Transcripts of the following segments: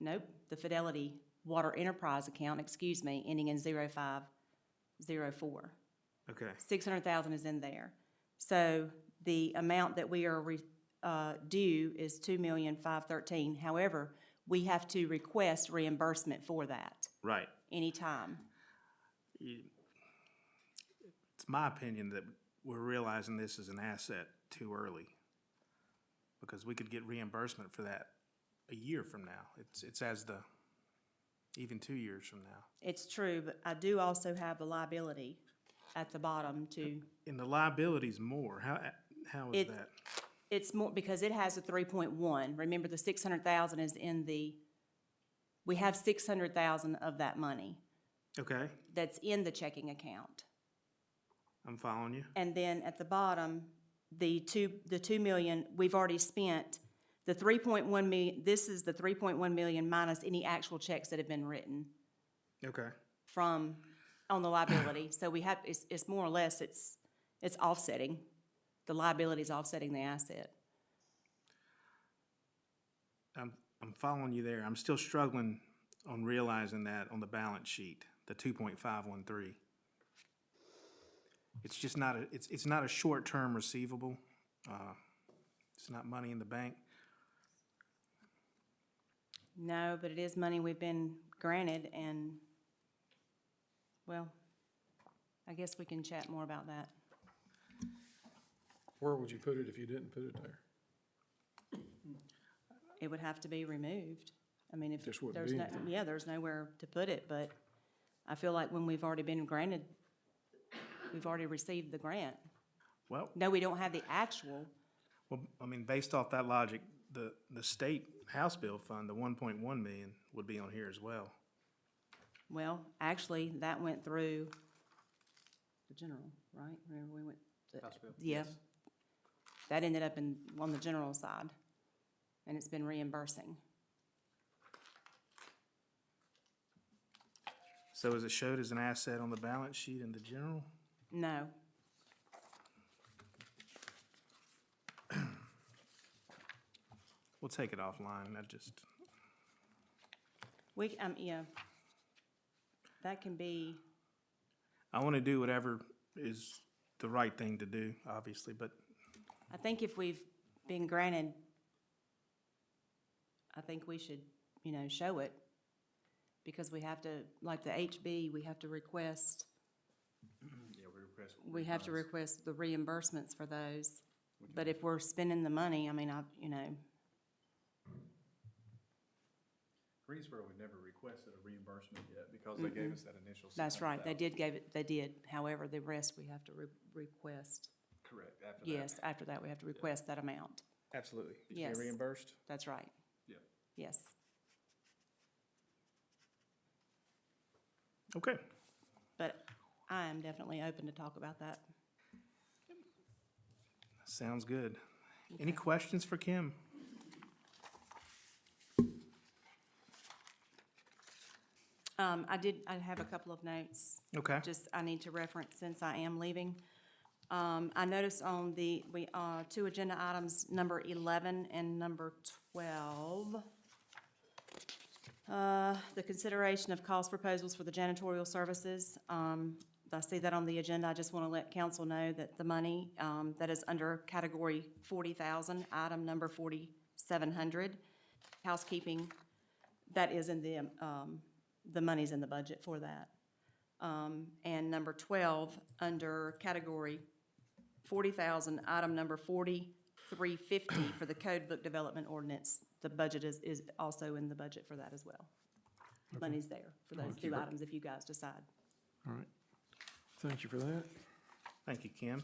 nope, the Fidelity Water Enterprise account, excuse me, ending in zero five zero four. Okay, Six hundred thousand is in there. So the amount that we are re, uh, due is two million five thirteen. However, we have to request reimbursement for that right. anytime. You- It's my opinion that we're realizing this is an asset too early. Because we could get reimbursement for that a year from now. It's, it's as the, even two years from now. It's true, but I do also have the liability at the bottom too. And the liability's more. How, how is It- that? It's more, because it has a three point one. Remember, the six hundred thousand is in the, we have six hundred thousand of that money Okay, that's in the checking account. I'm following you. And then at the bottom, the two, the two million, we've already spent. The three point one million, this is the three point one million minus any actual checks that have been written Okay. from, on the liability. So we have, it's, it's more or less, it's, it's offsetting. The liability is offsetting the asset. I'm, I'm following you there. I'm still struggling on realizing that on the balance sheet, the two point five one three. It's just not a, it's, it's not a short-term receivable. Uh, It's not money in the bank. No, but it is money we've been granted and, well, I guess we can chat more about that. Where would you put it if you didn't put it there? It would have to be removed. I mean, if Just wouldn't there's be no, yeah, there's nowhere to put it, but I feel like when we've already been granted, we've already received the grant. Well, No, we don't have the actual, well, I mean, based off that logic, the, the state House bill fund, the one point one million would be on here as well. well, actually, that went through the general, right? Remember, we went, to- yeah. That ended up in, on the general side, and it's been reimbursing. So is it showed as an asset on the balance sheet in the general? No. We'll take it offline. I just, We, um, yeah. That can be, I want to do whatever is the right thing to do, obviously, but I think if we've been granted, I think we should, you know, show it. Because we have to, like the HB, we have to request, Yeah, we request. we have to request the reimbursements for those. But if we're spending the money, I mean, I, you know, Greensboro would never requested a reimbursement yet because they gave us that initial. that's right, they 600,000. did give it, they did. However, the rest we have to re- request. Correct, after that. Yes, after that, we have to request that amount. Absolutely. Did you get Yes. reimbursed? That's right, Yeah. yes. Okay. But I am definitely open to talk about that. Sounds good. Any questions for Kim? Um, I did, I have a couple of notes, Okay. just I need to reference since I am leaving. Um, I noticed on the, we, uh, two agenda items, number eleven and number twelve. Uh, the consideration of cost proposals for the janitorial services. Um, I see that on the agenda. I just want to let council know that the money, um, that is under category forty thousand, item number forty-seven hundred, housekeeping, that is in the, um, the money's in the budget for that. Um, and number twelve, under category forty thousand, item number forty-three fifty for the code book development ordinance, the budget is, is also in the budget for that as well. Money's there for those two items if you guys decide. All right. Thank you for that. Thank you, Kim.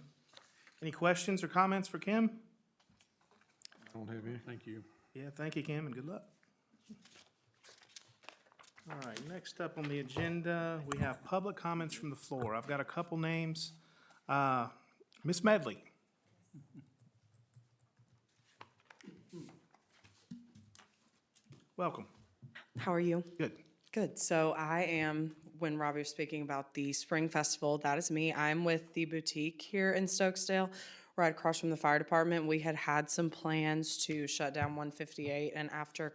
Any questions or comments for Kim? I don't have any. Thank you. Yeah, thank you, Kim, and good luck. All right, next up on the agenda, we have public comments from the floor. I've got a couple names. Uh, Ms. Medley? Welcome. How are you? Good. Good. So I am, when Robbie was speaking about the Spring Festival, that is me. I'm with the boutique here in Stokesdale, right across from the fire department. We had had some plans to shut down 158, and after